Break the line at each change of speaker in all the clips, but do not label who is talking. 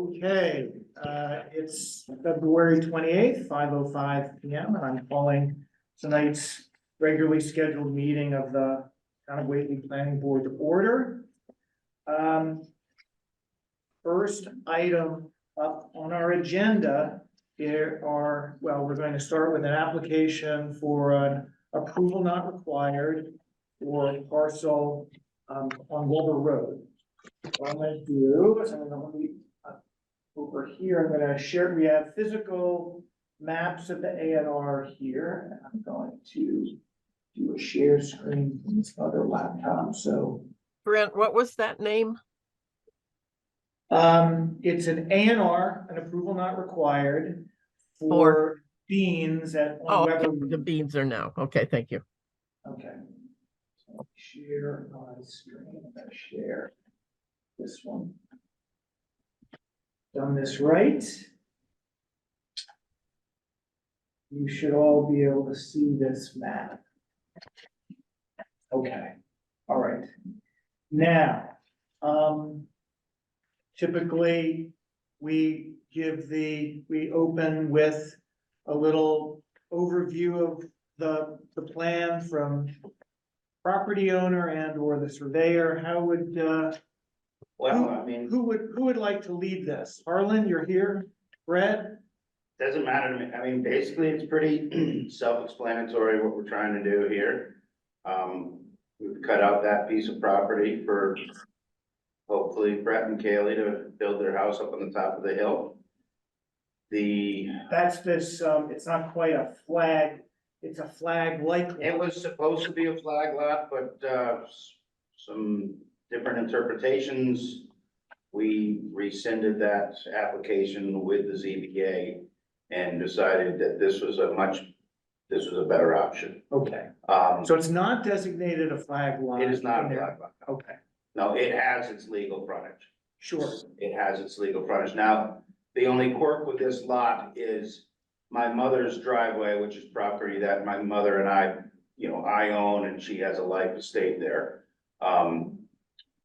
Okay, uh, it's February twenty-eighth, five oh five P M, and I'm calling tonight's regularly scheduled meeting of the Town of Whately Planning Board to order. Um, First item up on our agenda, there are, well, we're going to start with an application for an approval not required for parcel um, on Wilbur Road. What I'm gonna do is I'm gonna leave over here, I'm gonna share, we have physical maps of the ANR here, and I'm going to do a share screen from this other laptop, so.
Brent, what was that name?
Um, it's an ANR, an approval not required for beans at
Oh,
on
okay,
Weber.
the beans are now. Okay, thank you.
Okay. So Share my screen, I'm gonna share this one. Done this right. You should all be able to see this map. Okay, all right. Now, um, typically, we give the, we open with a little overview of the, the plan from property owner and or the surveyor, how would, uh,
Well, I mean,
who would, who would like to lead this? Harlan, you're here, Brett?
doesn't matter to me. I mean, basically, it's pretty self-explanatory what we're trying to do here. Um, we've cut out that piece of property for hopefully Brett and Kaylee to build their house up on the top of the hill. The,
That's this, um, it's not quite a flag, it's a flag like.
it was supposed to be a flag lot, but, uh, s- some different interpretations. We rescinded that application with the ZBA and decided that this was a much, this was a better option.
Okay,
Um,
so it's not designated a flag line.
it is not a
in there.
block lot.
Okay,
No, it has its legal frontage.
sure,
It has its legal frontage. Now, the only quirk with this lot is my mother's driveway, which is property that my mother and I, you know, I own and she has a life estate there. Um,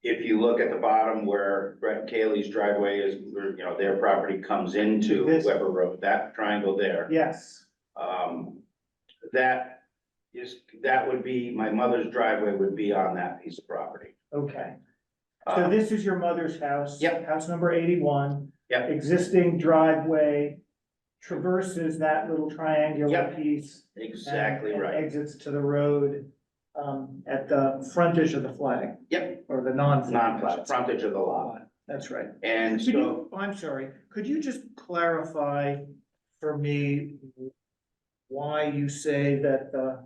if you look at the bottom where Brett Cayley's driveway is, where, you know, their property comes into
This-
Weber Road, that triangle there.
yes,
Um, that is, that would be, my mother's driveway would be on that piece of property.
okay. So
Um,
this is your mother's house.
Yep.
House number eighty-one.
Yep.
Existing driveway traverses that little triangular
Yep.
piece.
Exactly
and- and
right.
Exits to the road, um, at the frontage of the flag.
Yep.
Or the non.
Non-plat, frontage of the lot.
That's right.
And
Could
so,
you, I'm sorry, could you just clarify for me why you say that, uh,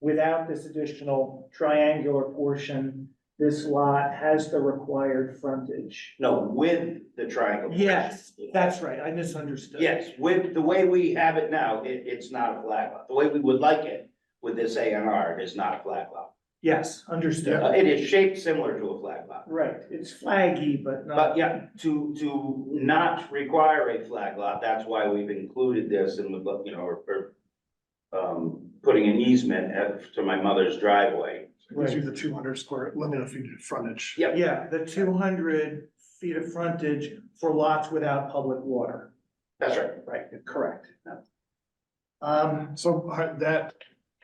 without this additional triangular portion, this lot has the required frontage?
no, with the triangle.
Yes, that's right, I misunderstood.
Yes, with, the way we have it now, it, it's not a flat lot. The way we would like it with this A and R is not a flat lot.
Yes, understood.
Uh, It is shaped similar to a flat lot.
Right, it's flaggy, but not.
But yeah, to, to not require a flag lot, that's why we've included this and would, look, you know, or, or, um, putting an easement at, to my mother's driveway.
Gives you the two hundred square limit of feet of frontage.
Yep.
Yeah, the two hundred feet of frontage for lots without public water.
That's right.
Right, correct. Um,
So uh, that,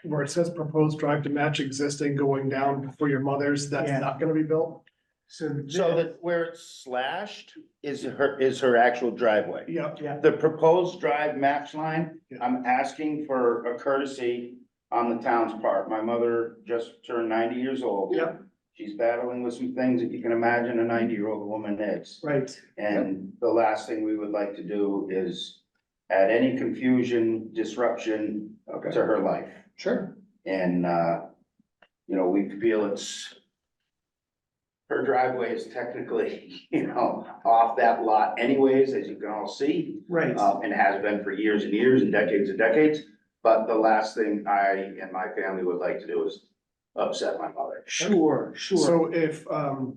where it says proposed drive to match existing going down for your mother's, that's
Yeah.
not gonna be built?
so. thi-
So that where it's slashed is her, is her actual driveway.
Yep,
Yeah,
The proposed drive match line,
Yeah.
I'm asking for a courtesy on the town's part. My mother just turned ninety years old.
Yep.
She's battling with some things that you can imagine a ninety-year-old woman is.
right,
And the last thing we would like to do is add any confusion, disruption to her life.
sure,
And, uh, you know, we feel it's her driveway is technically, you know, off that lot anyways, as you can all see,
right,
uh, and has been for years and years and decades and decades. But the last thing I and my family would like to do is upset my mother.
sure, sure.
so if, um,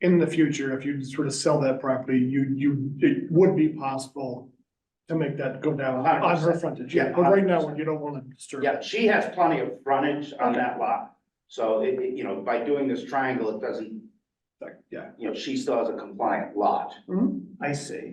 in the future, if you sort of sell that property, you, you, it would be possible to make that go down on her
100%.
frontage,
Yeah,
yeah, but right now,
100%.
you don't wanna disturb.
Yeah, she has plenty of frontage on that lot. So it, it- you know, by doing this triangle, it doesn't,
that. Yeah.
Mm-hmm.
you know, she still has a compliant lot.
I see.